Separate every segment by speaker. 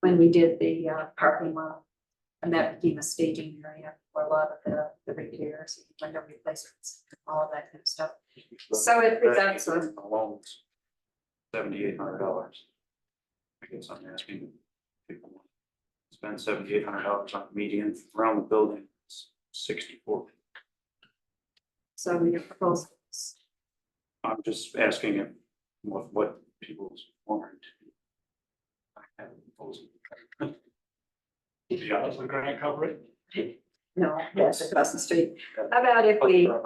Speaker 1: when we did the uh, parking lot. And that became a staging area for a lot of the, the repairs, window replacements, all of that kind of stuff. So it- it's excellent.
Speaker 2: Seventy-eight hundred dollars. I guess I'm asking people. want to Spend seventy-eight hundred dollars on median around the building, it's sixty-four.
Speaker 1: So your proposal is
Speaker 2: I'm just asking if what, what people's warrant. I have a proposal. Yeah,
Speaker 3: Does the grant cover it?
Speaker 1: no, that's across the street. How about if we, how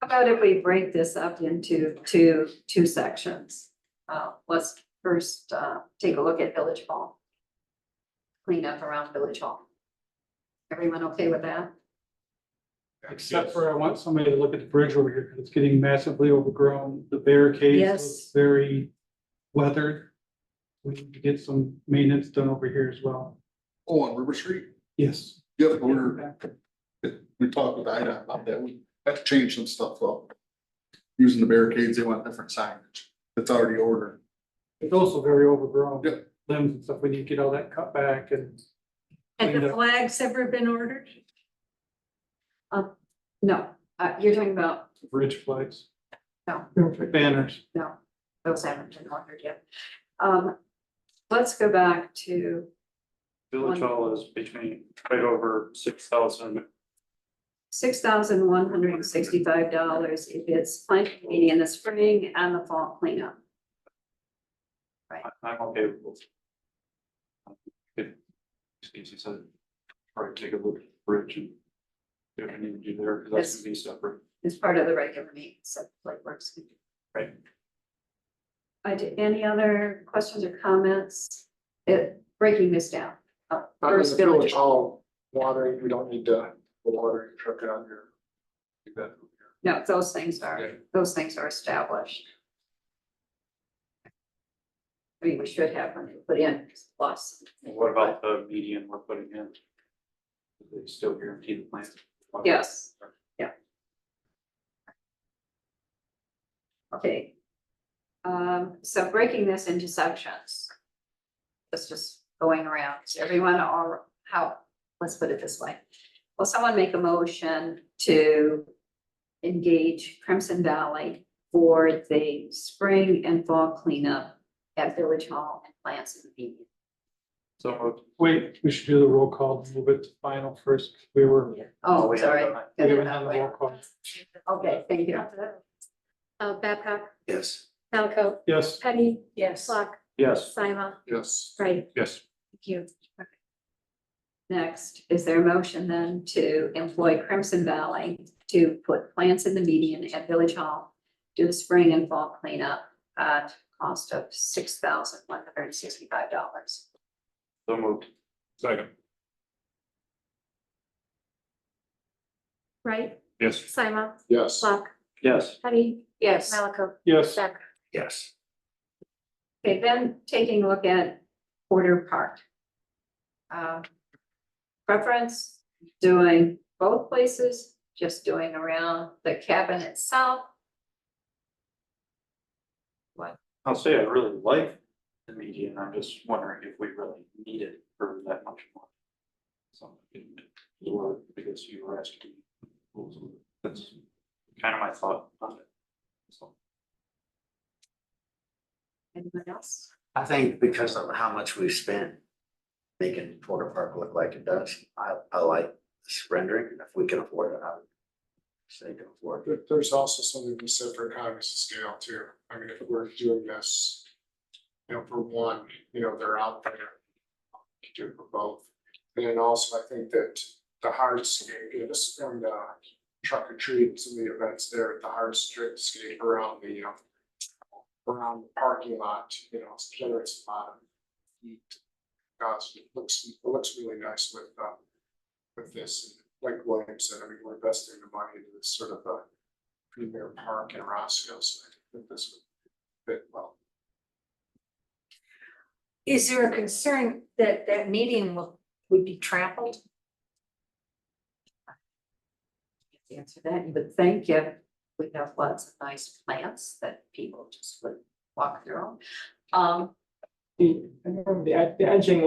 Speaker 1: about if we break this up into two, two sections? Uh, let's first, uh, take a look at Village Hall. Clean up around Village Hall. Everyone okay with that?
Speaker 3: Except for I want somebody to look at the bridge over here, 'cause it's getting massively overgrown, Um, the barricades.
Speaker 1: Yes.
Speaker 3: look Very weathered. We need to get some maintenance done over here as well.
Speaker 4: Oh, on River Street?
Speaker 3: Yes.
Speaker 4: Yep, we're, we talked with Ida about that. We have to change some stuff up. Using the barricades, they want different signage. It's already ordered.
Speaker 3: It's also very overgrown.
Speaker 4: Yeah.
Speaker 3: Limbs and stuff, we need to get all that cut back and
Speaker 5: Had
Speaker 3: Cleaned
Speaker 5: the
Speaker 3: up.
Speaker 5: flags ever been ordered?
Speaker 1: No, uh, you're talking about,
Speaker 3: bridge flags.
Speaker 1: No.
Speaker 3: Banners.
Speaker 1: no, those haven't been ordered yet. Um, let's go back to
Speaker 2: Village Hall is between, right over six thousand,
Speaker 1: six thousand one hundred and sixty-five dollars if it's planting meeting in the spring and the fall cleanup.
Speaker 2: I- I'm okay with both. If, as you said, probably take a look at the bridge and do what I need to do there, because that's gonna be separate.
Speaker 1: It's part of the regular meeting, so like works.
Speaker 2: Right.
Speaker 1: I did, Uh, any other questions or comments? It, breaking this down. Uh, First village,
Speaker 4: hall watering, we don't need to, the watering truck out here. Do that.
Speaker 1: no, those things are,
Speaker 4: Yeah.
Speaker 1: those things are established. I mean, we should have when they put in plus.
Speaker 2: What about the median we're putting in? Do They still guarantee the plant.
Speaker 1: Yes, yeah. Okay. Um, so breaking this into sections. Let's just going around, Is everyone or how, let's put it this way. Will someone make a motion to engage Crimson Valley for the spring and fall cleanup at Village Hall and plants and Pavilion?
Speaker 2: So moved.
Speaker 3: Wait, we should do the roll call, move it to final first. We were,
Speaker 1: Oh,
Speaker 2: We
Speaker 1: sorry.
Speaker 2: haven't done
Speaker 3: we haven't had the roll call.
Speaker 1: Okay, thank you.
Speaker 5: Uh, Babcock,
Speaker 2: that. Yes.
Speaker 5: Falco,
Speaker 3: Yes.
Speaker 5: Petty,
Speaker 1: Yes.
Speaker 5: Flock,
Speaker 2: Yes.
Speaker 5: Sima,
Speaker 4: Yes.
Speaker 5: right,
Speaker 2: Yes.
Speaker 5: thank you.
Speaker 1: Next, is there a motion then to employ Crimson Valley to put plants in the median at Village Hall? Do the spring and fall cleanup at cost of six thousand one hundred and sixty-five dollars.
Speaker 2: So moved. Second.
Speaker 5: Right,
Speaker 2: Yes.
Speaker 5: Sima,
Speaker 4: Yes.
Speaker 5: Flock,
Speaker 2: Yes.
Speaker 5: Petty,
Speaker 1: Yes.
Speaker 5: Malaco,
Speaker 3: Yes.
Speaker 5: Becker.
Speaker 2: Yes.
Speaker 1: Okay, then taking a look at Porter Park. Um, Preference, doing both places, just doing around the cabin itself.
Speaker 2: I'll say I really like the median, I'm just wondering if we really need it for that much more. So, you were, because you were asking. That's kind of my thought on it. So,
Speaker 1: Anyone else?
Speaker 6: I think because of how much we've spent making Porter Park look like it does, I, I like surrendering, and if we can afford it, I would say go for it.
Speaker 7: There- there's also something to be said for economies of scale too. I mean, if we're doing this, you know, for one, you know, they're out there. You do it for both. And then also, I think that the hardscape, you know, this is from the truck or treat, and some of the events there, at the hardscape around the, um, around the parking lot, you know, it's generous amount of heat. Gosh, it looks, it looks really nice with, um, with this, and like William said, I mean, we're investing the money into this sort of a premier park in Roscoe, so I think this would fit well.
Speaker 5: Is there a concern that that median will, would be trampled?
Speaker 1: To Answer that, you would think if we have lots of nice plants that people just would walk through. Um,
Speaker 8: The, I remember the ed- the edging